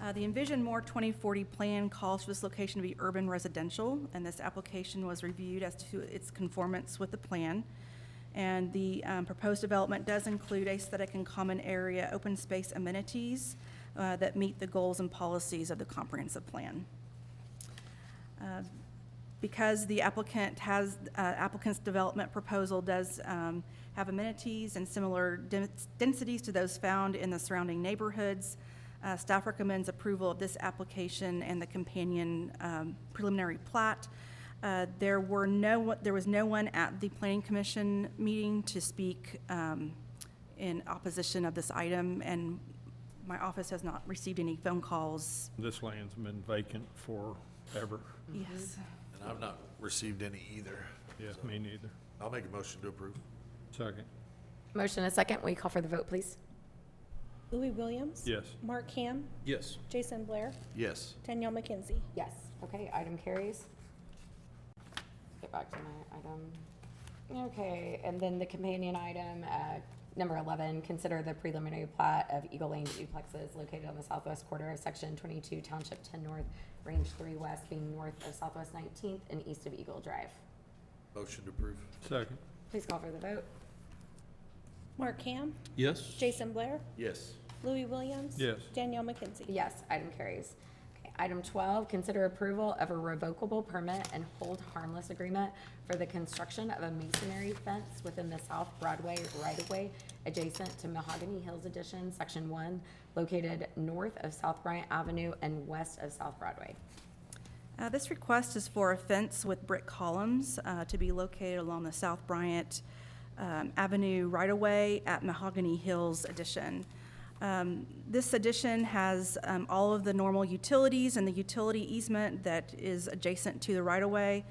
Uh, The Envision More 2040 plan calls for this location to be urban residential, and this application was reviewed as to its conformance with the plan. And the um, proposed development does include aesthetic and common area, open space amenities uh, that meet the goals and policies of the comprehensive plan. Uh, Because the applicant has, uh, applicant's development proposal does um, have amenities and similar dens- densities to those found in the surrounding neighborhoods, uh, staff recommends approval of this application and the companion um, preliminary plat. Uh, There were no, one- there was no one at the planning commission meeting to speak um, in opposition of this item, and my office has not received any phone calls. This land's been vacant forever. Yes. And I've not received any either. Yeah, So, me neither. I'll make a motion to approve. Second, Motion and a second. Will you call for the vote, please? Louis Williams. yes. Mark Ham. Yes. Jason Blair. Yes. Danielle McKenzie. Yes. Okay, item carries. Get back to my item. Okay, and then the companion item, uh, number 11, consider the preliminary plat of Eagle Lane duplexes located on the southwest quarter of Section 22, Township 10 North, Range 3 West, being north of Southwest 19th and east of Eagle Drive. Motion to approve. Second, Please call for the vote. Mark Ham. Yes. Jason Blair. Yes. Louis Williams. Yes. Danielle McKenzie. Yes, item carries. Okay, Item 12, consider approval of a revocable permit and hold harmless agreement for the construction of a masonry fence within the South Broadway right-of-way adjacent to Mahogany Hills Edition, Section 1, located north of South Bryant Avenue and west of South Broadway. Uh, This request is for a fence with brick columns uh, to be located along the South Bryant um, Avenue right-of-way at Mahogany Hills Edition. Um, This addition has um, all of the normal utilities and the utility easement that is adjacent to the right-of-way,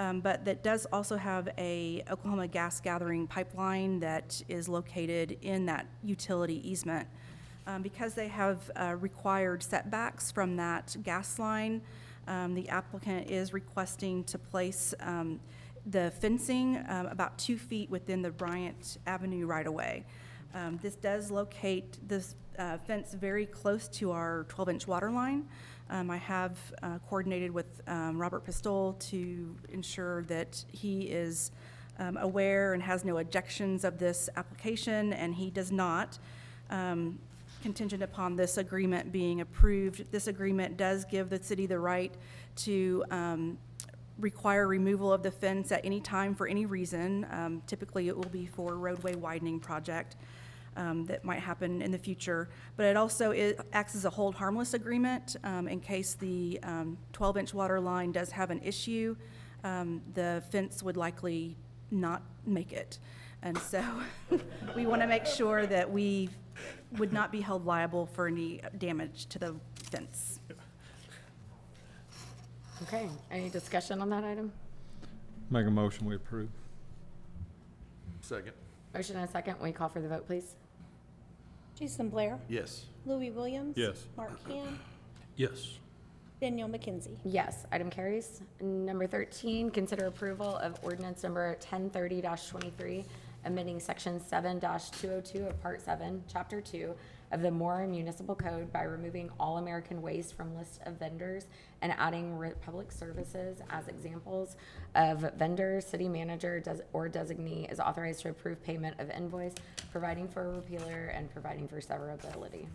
um, but that does also have a Oklahoma gas gathering pipeline that is located in that utility easement. Um, Because they have uh, required setbacks from that gas line, um, the applicant is requesting to place um, the fencing um, about two feet within the Bryant Avenue right-of-way. Um, This does locate this uh, fence very close to our 12-inch water line. Um, I have uh, coordinated with um, Robert Pistol to ensure that he is um, aware and has no objections of this application, and he does not. Um, contingent upon this agreement being approved. This agreement does give the city the right to um, require removal of the fence at any time for any reason. Um, Typically, it will be for roadway widening project um, that might happen in the future. But it also i- acts as a hold harmless agreement um, in case the 12-inch water line does have an issue. um, The fence would likely not make it. And so we want to make sure that we would not be held liable for any damage to the fence. Okay, any discussion on that item? Make a motion, we approve. Second. Motion and a second. Will you call for the vote, please? Jason Blair. Yes. Louis Williams. Yes. Mark Ham. Yes. Danielle McKenzie. Yes, item carries. Number 13, consider approval of ordinance number 1030-23, amending section 7-202 of Part 7, Chapter 2 of the Moore Municipal Code by removing all American waste from list of vendors and adding Republic Services as examples of vendors, city manager, des- or designee is authorized to approve payment of invoice, providing for repealer and providing for severability.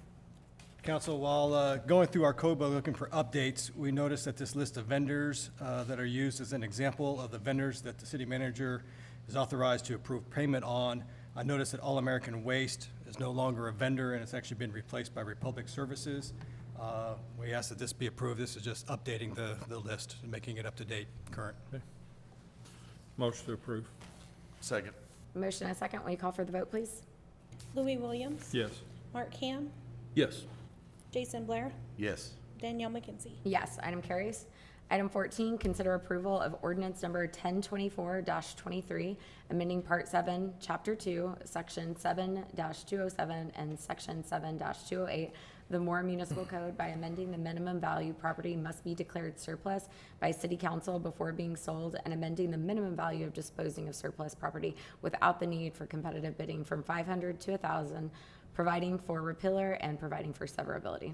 Council, while uh, going through our code book looking for updates, we noticed that this list of vendors uh, that are used as an example of the vendors that the city manager is authorized to approve payment on, I noticed that All American Waste is no longer a vendor, and it's actually been replaced by Republic Services. Uh, We ask that this be approved. This is just updating the, the list, and making it up to date, current. Motion to approve, Second. Motion and a second. Will you call for the vote, please? Louis Williams. yes. Mark Ham. Yes. Jason Blair. Yes. Danielle McKenzie. Yes, item carries. Item 14, consider approval of ordinance number 1024-23, amending Part 7, Chapter 2, Section 7-207 and Section 7-208 of the Moore Municipal Code by amending the minimum value property must be declared surplus by city council before being sold and amending the minimum value of disposing of surplus property without the need for competitive bidding from 500 to 1,000, providing for repealer and providing for severability.